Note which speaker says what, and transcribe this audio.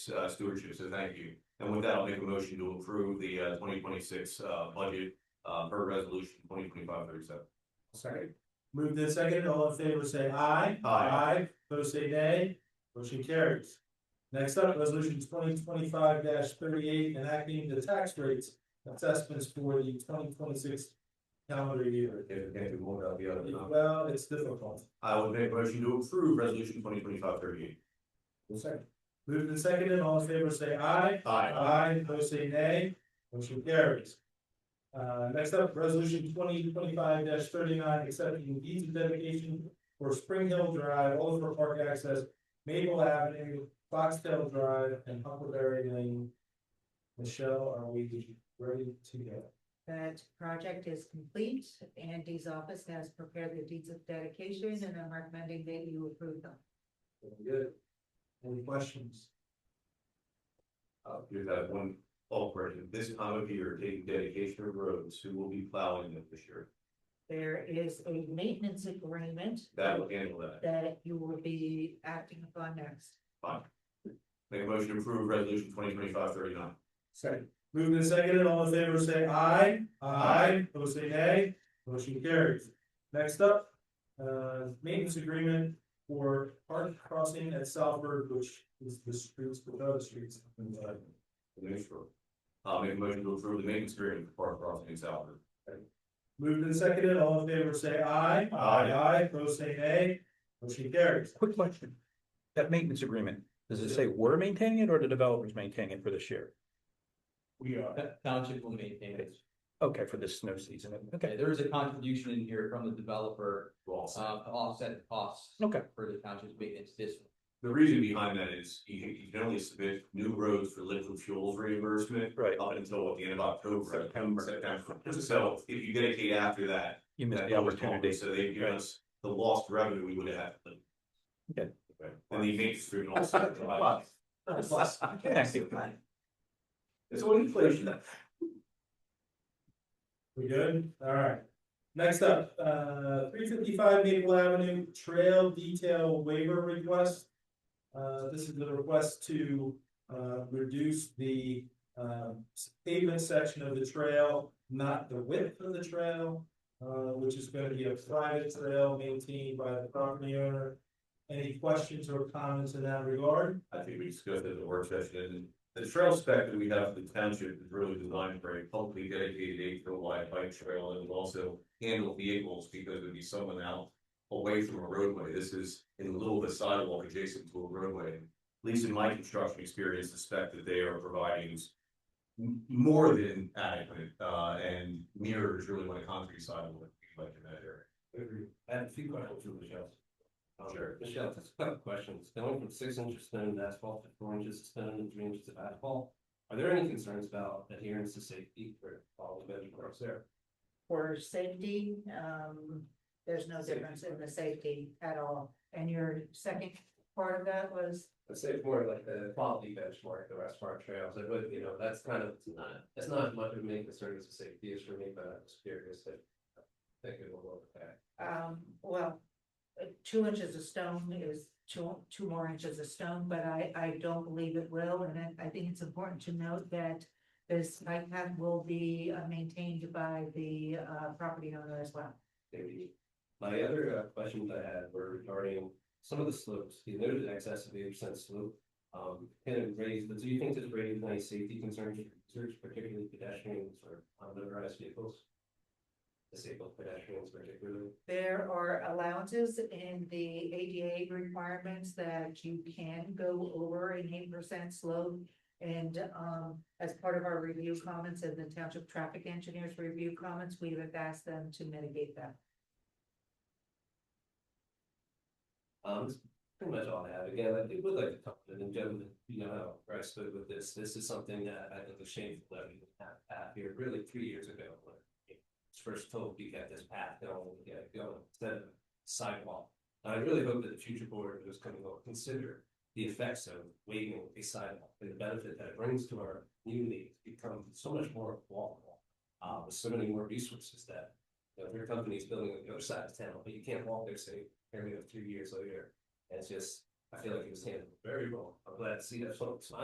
Speaker 1: uh, stewardship, so thank you. And with that, I'll make a motion to approve the uh, twenty twenty-six budget uh, per resolution twenty twenty-five thirty-seven.
Speaker 2: Sorry. Move this second, all in favor, say aye.
Speaker 1: Aye.
Speaker 2: Aye, opposed say nay, motion carries. Next up, resolution twenty twenty-five thirty-eight, enacting the tax rates assessments for the twenty twenty-six calendar year.
Speaker 1: If you can't do one without the other, no.
Speaker 2: Well, it's difficult.
Speaker 1: I will make a motion to approve resolution twenty twenty-five thirty-eight.
Speaker 2: Second. Move the second, all in favor, say aye.
Speaker 1: Aye.
Speaker 2: Aye, opposed say nay, motion carries. Uh, next up, resolution twenty twenty-five thirty-nine, accepting deeds of dedication for Spring Hill Drive, Oliver Park Access, Maple Avenue, Foxtel Drive, and Huckleberry Lane. Michelle, are we ready to go?
Speaker 3: That project is complete. Andy's office has prepared the deeds of dedication and I'm recommending that you approve them.
Speaker 2: Very Good. Any questions?
Speaker 1: Uh, here's that one, all question, this time of year, taking dedication of roads, who will be plowing them this year?
Speaker 3: There is a maintenance agreement.
Speaker 1: That will handle that.
Speaker 3: That you will be acting upon next.
Speaker 1: Make a motion to approve resolution twenty twenty-five thirty-nine.
Speaker 2: Second. Moving and seconded, all in favor, say aye. Aye. Opposed, say nay. Motion carries. Next up, uh, maintenance agreement for park crossing at Southburg, which is the streets, the other streets.
Speaker 1: Make sure. I'll make a motion to approve the maintenance agreement for Park Crossing in Southwood.
Speaker 2: Moved and seconded, all in favor, say aye.
Speaker 1: Aye.
Speaker 2: Aye, opposed, say nay. Motion carries.
Speaker 4: Quick question. That maintenance agreement, does it say we're maintaining it or the developer's maintaining it for this year?
Speaker 2: We are.
Speaker 5: The Township will maintain it.
Speaker 4: Okay, for this snow season. Okay,
Speaker 5: Okay, there is a contribution in here from the developer,
Speaker 1: Well,
Speaker 5: uh, to offset the costs.
Speaker 4: Okay.
Speaker 5: For the township's maintenance this.
Speaker 1: The reason behind that is you, you can only submit new roads for liquid fuels reimbursement
Speaker 4: right.
Speaker 1: up until the end of October.
Speaker 4: September.
Speaker 1: September. So if you dedicate after that.
Speaker 4: You missed
Speaker 1: that
Speaker 4: the
Speaker 1: goes on,
Speaker 4: opportunity.
Speaker 1: So they give us the lost revenue we would have had.
Speaker 4: Okay.
Speaker 1: And the maintenance agreement also. provides-
Speaker 4: Thank you.
Speaker 1: It's all inflation.
Speaker 2: We good? Alright. Next up, uh, three fifty-five Maple Avenue Trail Detail Waiver Request. Uh, this is the request to, uh, reduce the, um, pavement section of the trail, not the width of the trail. Uh, which is gonna be a private trail maintained by the property owner. Any questions or comments in that regard?
Speaker 1: I think we discussed it in the work session, and the trail spec that we have for the township is really designed for a publicly dedicated eight foot wide bike trail, and will also handle vehicles because it'd be someone out away from a roadway, this is in the middle of a sidewalk adjacent to a roadway. At least in my construction experience, the spec that they are providing is m- more than adequate, uh, and mirrors really what a concrete sidewalk would be like in that area.
Speaker 6: Agreed. I have a few questions for Michelle. Um,
Speaker 1: Sure.
Speaker 6: Michelle, just a couple of questions. Going from six inches of stone to asphalt to four inches of stone and three inches of asphalt. Are there any concerns about adherence to safety for all the vehicle parts there?
Speaker 3: For safety, um, there's no difference in the safety at all. And your second part of that was,
Speaker 6: I'd say it's more like the quality benchmark, the rest of our trails, I would, you know, that's kind of, it's not, it's not much of a main concern as a safety issue for me, but I'm just curious if. I Think it will look that.
Speaker 3: um, well, uh, two inches of stone is two, two more inches of stone, but I, I don't believe it will. And I, I think it's important to note that this bike path will be uh, maintained by the, uh, property owner as well.
Speaker 6: maybe. My other uh, questions I had were regarding some of the slopes, you noted excess of eight percent slope. Um, kind of raised, but do you think this raises any safety concerns for users, particularly pedestrians or unmotorized vehicles? Disabled pedestrians particularly,
Speaker 3: There are allowances in the ADA requirements that you can go over an eight percent slope. And um, as part of our review comments and the township traffic engineers review comments, we have asked them to mitigate that.
Speaker 6: um, that's pretty much all I have, again, I think would like to talk to the gentleman, you know, how I spoke with this, this is something that I think is shameful that we didn't have path here, really three years ago. when it was First told you got this path, going, we got it going, instead of sidewalk. I really hope that the future board is coming will consider the effects of waiving a sidewalk and the benefit that it brings to our community to become so much more walkable. Uh, with so many more resources that, you know, your company's building on the other side of town, but you can't walk there, say, here we have three years later. And it's just, I feel like it was handled very well. I'm glad to see that folks,